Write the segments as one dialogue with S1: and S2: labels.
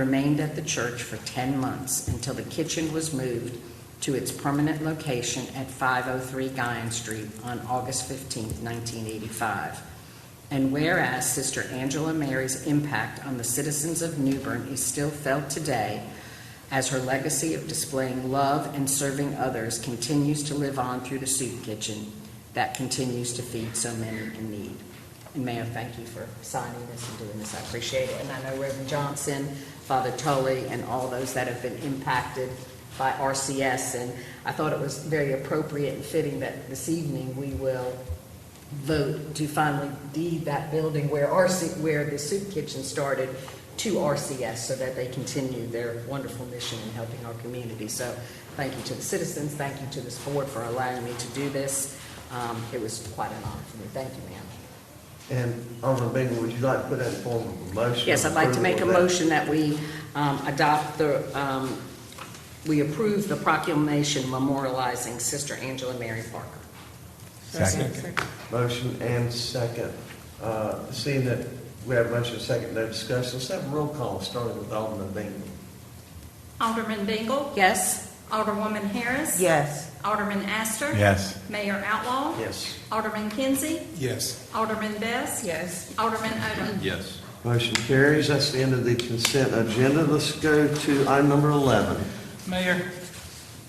S1: remained at the church for 10 months until the kitchen was moved to its permanent location at 503 Guyan Street on August 15, 1985. And whereas Sister Angela Mary's impact on the citizens of Newbern is still felt today as her legacy of displaying love and serving others continues to live on through the soup kitchen that continues to feed so many in need. And Mayor, thank you for signing this and doing this. I appreciate it. And I know Reverend Johnson, Father Tully, and all those that have been impacted by RCS. And I thought it was very appropriate and fitting that this evening we will vote to finally deed that building where RC, where the soup kitchen started to RCS so that they continue their wonderful mission in helping our community. So thank you to the citizens, thank you to this board for allowing me to do this. Um, It was quite an honor for me. Thank you, ma'am.
S2: And Alderman Bingle, would you like to put that in form of a motion?
S1: Yes, I'd like to make a
S2: approval of
S1: motion that we um, adopt the, um, we approve the proclamation memorializing Sister Angela Mary Parker.
S3: Second.
S2: that? Motion and second. Uh, Seeing that we have a motion and second, no discussion, let's have a roll call, starting with Alderman Bingle.
S4: Alderman Bingle.
S1: Yes?
S4: Alderwoman Harris.
S5: Yes.
S4: Alderman Astor.
S3: Yes.
S4: Mayor Outlaw.
S2: Yes.
S4: Alderman Kinsey.
S3: Yes.
S4: Alderman Best.
S5: Yes.
S4: Alderman Odom.
S6: Yes.
S2: Motion carries, that's the end of the consent agenda. Let's go to item number 11.
S6: Mayor,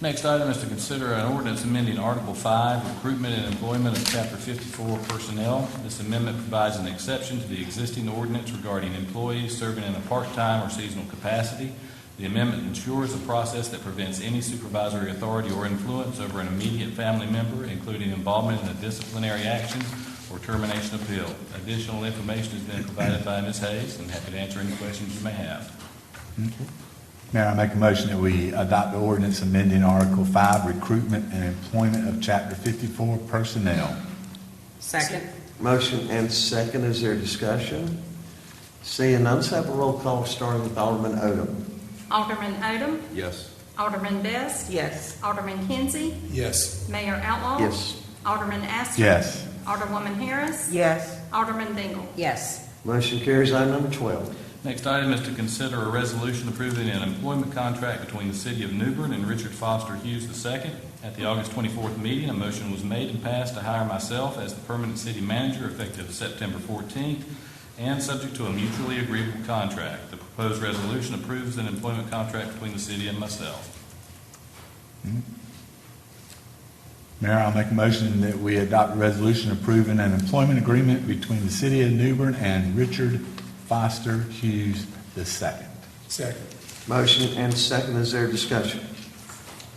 S6: next item is to consider an ordinance amending Article 5, Recruitment and Employment of Chapter 54 Personnel. This amendment provides an exception to the existing ordinance regarding employees serving in a part-time or seasonal capacity. The amendment ensures a process that prevents any supervisory authority or influence over an immediate family member, including involvement in a disciplinary action or termination appeal. Additional information has been provided by Ms. Hayes, and happy to answer any questions you may have.
S3: Mayor, I make a motion that we adopt the ordinance amending Article 5, Recruitment and Employment of Chapter 54 Personnel.
S1: Second?
S2: Motion and second, is there discussion? Seeing none, let's have a roll call, starting with Alderman Odom.
S4: Alderman Odom.
S6: Yes.
S4: Alderman Best.
S5: Yes.
S4: Alderman Kinsey.
S3: Yes.
S4: Mayor Outlaw.
S2: Yes.
S4: Alderman Astor.
S3: Yes.
S4: Alderwoman Harris.
S5: Yes.
S4: Alderman Bingle.
S1: Yes.
S2: Motion carries, item number 12.
S6: Next item is to consider a resolution approving an employment contract between the City of Newbern and Richard Foster Hughes II. At the August 24th meeting, a motion was made and passed to hire myself as the permanent city manager effective September 14th and subject to a mutually agreeable contract. The proposed resolution approves an employment contract between the city and myself.
S3: Mayor, I'll make a motion that we adopt a resolution approving an employment agreement between the City of Newbern and Richard Foster Hughes II.
S7: Second.
S2: Motion and second, is there discussion?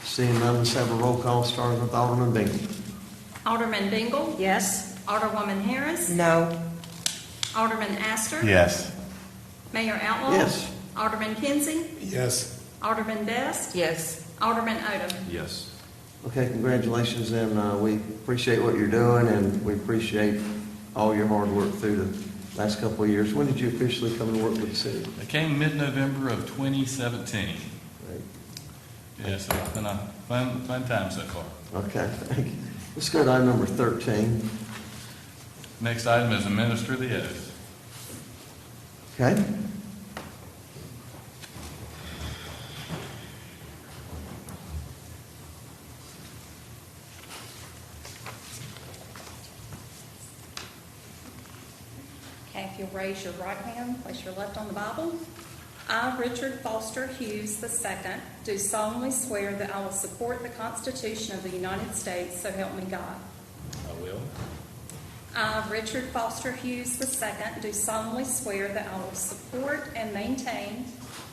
S2: Seeing none, let's have a roll call, starting with Alderman Bingle.
S4: Alderman Bingle.
S1: Yes?
S4: Alderwoman Harris.
S5: No.
S4: Alderman Astor.
S3: Yes.
S4: Mayor Outlaw.
S2: Yes.
S4: Alderman Kinsey.
S7: Yes.
S4: Alderman Best.
S1: Yes.
S4: Alderman Odom.
S6: Yes.
S2: Okay, congratulations, and uh, we appreciate what you're doing, and we appreciate all your hard work through the last couple of years. When did you officially come to work with the city?
S6: It came mid-November of 2017.
S2: Right.
S6: Yes, it's been a fun, fun time so far.
S2: Okay, thank you. Let's go to item number 13.
S6: Next item is administer the oath.
S2: Okay?
S4: Okay, if you'll raise your right hand, place your left on the Bible. I, Richard Foster Hughes II, do solemnly swear that I will support the Constitution of the United States, so help me God.
S6: I will.
S4: I, Richard Foster Hughes II, do solemnly swear that I will support and maintain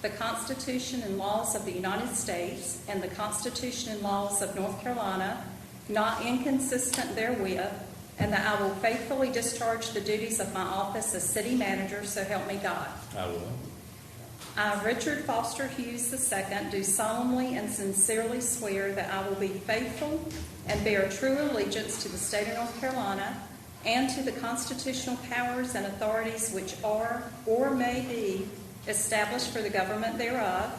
S4: the Constitution and laws of the United States and the Constitution and laws of North Carolina, not inconsistent therewith, and that I will faithfully discharge the duties of my office as city manager, so help me God.
S6: I will.
S4: I, Richard Foster Hughes II, do solemnly and sincerely swear that I will be faithful and bear true allegiance to the state of North Carolina and to the constitutional powers and authorities which are or may be established for the government thereof,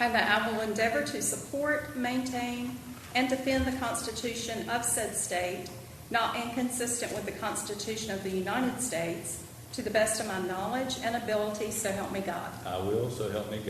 S4: and that I will endeavor to support, maintain, and defend the Constitution of said state, not inconsistent with the Constitution of the United States, to the best of my knowledge and ability, so help me God.
S6: I Uh, will, so help me God.